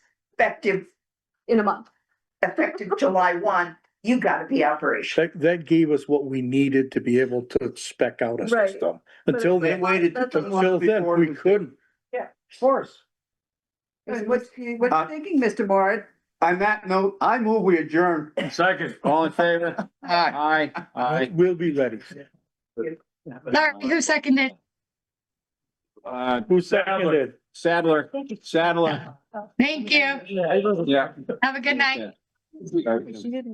effective, in a month. effective July one, you gotta be operational. That, that gave us what we needed to be able to spec out a Right. system. Until They then, waited That's a until until then, before. we couldn't. Of course. What's, what's Uh, thinking, Mr. Moore? On that note, I move we adjourn. Second, all in favor? Aye. Aye. We'll be ready. Larry, who seconded? Uh, Who seconded? Sadler, Sadler. Thank you. Yeah. Have a good night. Yeah. didn't